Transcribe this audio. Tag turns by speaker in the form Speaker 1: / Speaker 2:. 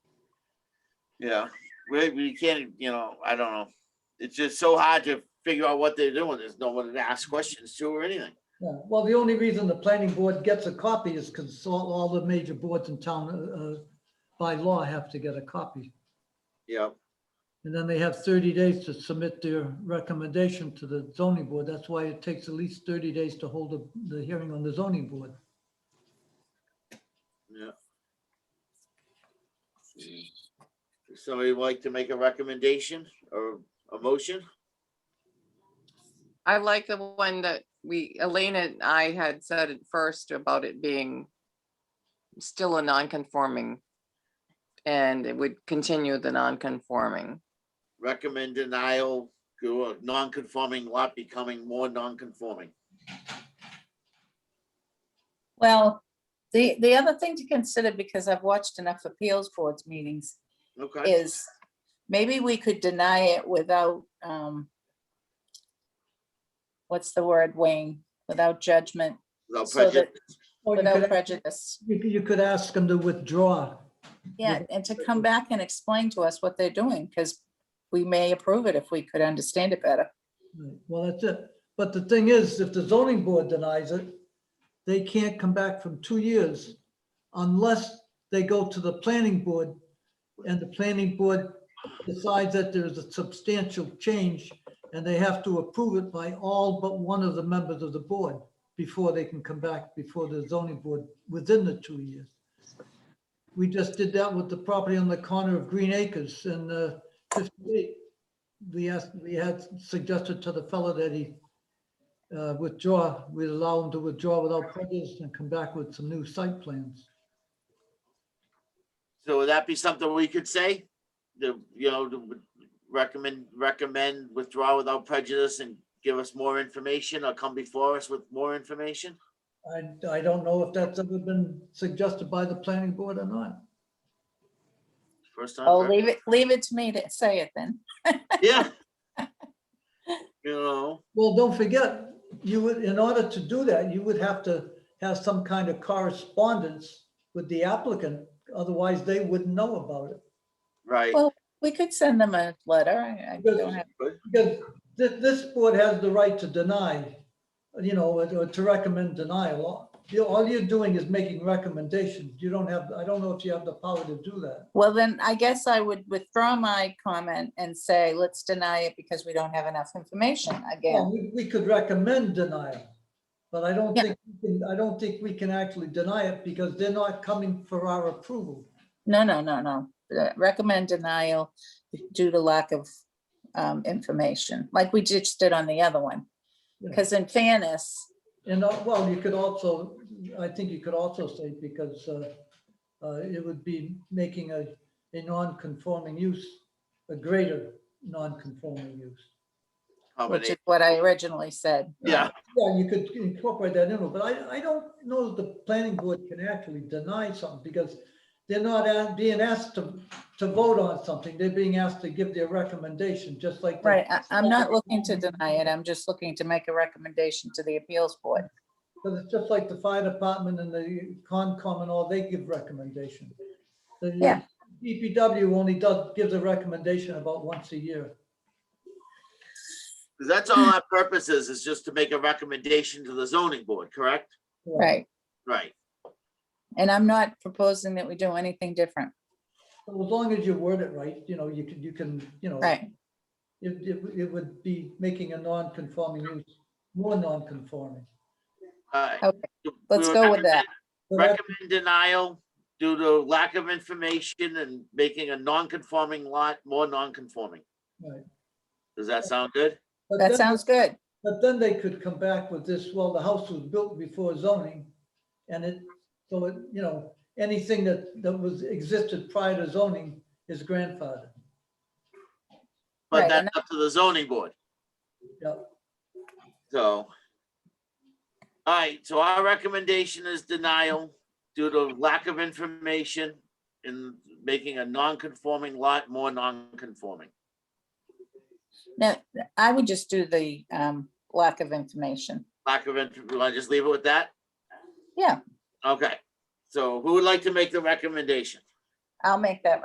Speaker 1: Yeah, we, we can't, you know, I don't know. It's just so hard to figure out what they're doing. There's no one to ask questions to or anything.
Speaker 2: Yeah, well, the only reason the planning board gets a copy is because all, all the major boards in town, uh, uh, by law have to get a copy.
Speaker 1: Yeah,
Speaker 2: And then they have thirty days to submit their recommendation to the zoning board. That's why it takes at least thirty days to hold the- the hearing on the zoning board.
Speaker 1: Does Somebody like to make a recommendation or a motion?
Speaker 3: I like the one that we, Elena and I had said at first about it being still a non-conforming. And it would continue the non-conforming.
Speaker 1: Recommend denial to a non-conforming lot becoming more non-conforming.
Speaker 4: Well, the, the other thing to consider, because I've watched enough appeals boards meetings,
Speaker 1: Okay,
Speaker 4: is maybe we could deny it without, um, what's the word, Wayne, without judgment,
Speaker 1: without
Speaker 4: so that-
Speaker 1: prejudice.
Speaker 2: Or you
Speaker 4: without
Speaker 2: could-
Speaker 4: prejudice.
Speaker 2: You, could- you could ask them to withdraw.
Speaker 4: Yeah, and to come back and explain to us what they're doing, because we may approve it if we could understand it better.
Speaker 2: Right, Well, that's it. But the thing is, if the zoning board denies it, they can't come back from two years unless they go to the planning board and the planning board decides that there is a substantial change and they have to approve it by all but one of the members of the board before they can come back before the zoning board within the two years. We just did that with the property on the corner of Green Acres and uh, 58 we asked, we had suggested to the fellow that he uh, withdraw, we'd allow him to withdraw without prejudice and come back with some new site plans.
Speaker 1: So would that be something we could say? The, you know, the recommend, recommend withdraw without prejudice and give us more information or come before us with more information?
Speaker 2: I, I don't know if that's ever been suggested by the planning board or not.
Speaker 1: First time.
Speaker 4: Oh,
Speaker 1: for-
Speaker 4: leave it, leave it to me to say it then.
Speaker 1: Yeah. You know,
Speaker 2: Well, don't forget, you would, in order to do that, you would have to have some kind of correspondence with the applicant, otherwise they wouldn't know about it.
Speaker 1: right.
Speaker 4: Well, We could send them a letter. I I don't have,
Speaker 2: Because this, this board has the right to deny, you know, or or to recommend denial. You- All you're doing is making recommendations. You don't have, I don't know if you have the power to do that.
Speaker 4: well, then I guess I would withdraw my comment and say, let's deny it because we don't have enough information
Speaker 2: Well,
Speaker 4: again.
Speaker 2: We, we could recommend denial, but I don't
Speaker 4: Yeah.
Speaker 2: think, we can- I don't think we can actually deny it because they're not coming for our approval.
Speaker 4: No, no, no, no. Uh, Recommend denial due to lack of um, information, like we just did on the other one.
Speaker 2: Yeah.
Speaker 4: Because in fairness,
Speaker 2: And, uh, well, you could also, I think you could also say because uh, uh, it would be making a, a non-conforming use, a greater non-conforming use.
Speaker 4: which
Speaker 1: combination.
Speaker 4: is what I originally said.
Speaker 1: Yeah,
Speaker 2: Yeah, you could incorporate that in, but I, I don't know that the planning board can actually deny something because they're not a- being asked to, to vote on something. They're being asked to give their recommendation, just like. the-
Speaker 4: Right, I- I'm not looking to deny it. I'm just looking to make a recommendation to the appeals board.
Speaker 2: Because it's just like the fire department and the Concom and all, they give recommendations. The
Speaker 4: Yeah.
Speaker 2: DPW only does, gives a recommendation about once a year.
Speaker 1: 'cause that's all our purpose is, is just to make a recommendation to the zoning board, correct?
Speaker 4: Right,
Speaker 1: Right,
Speaker 4: and I'm not proposing that we do anything different.
Speaker 2: So As long as you word it right, you know, you can, you can, you know.
Speaker 4: Right,
Speaker 2: It, it, would- it would be making a non-conforming use, more non-conforming.
Speaker 1: all right.
Speaker 4: Okay,
Speaker 1: We
Speaker 4: let's
Speaker 1: were
Speaker 4: go with that.
Speaker 2: But that-
Speaker 1: Recommend denial due to lack of information and making a non-conforming lot more non-conforming.
Speaker 2: Right.
Speaker 1: Does that sound good?
Speaker 2: but
Speaker 4: That
Speaker 2: then-
Speaker 4: sounds good.
Speaker 2: But then they could come back with this, well, the house was built before zoning. And it, so it, you know, anything that, that was existed prior to zoning is grandfathered.
Speaker 1: But
Speaker 4: Right,
Speaker 1: that's
Speaker 4: and
Speaker 1: up to the zoning board,
Speaker 2: Yep.
Speaker 1: so. All right, so our recommendation is denial due to lack of information in making a non-conforming lot more non-conforming.
Speaker 4: No, I would just do the um, lack of information.
Speaker 1: Lack of, int- will I just leave it with that?
Speaker 4: Yeah.
Speaker 1: Okay, so who would like to make the recommendation?
Speaker 4: I'll make that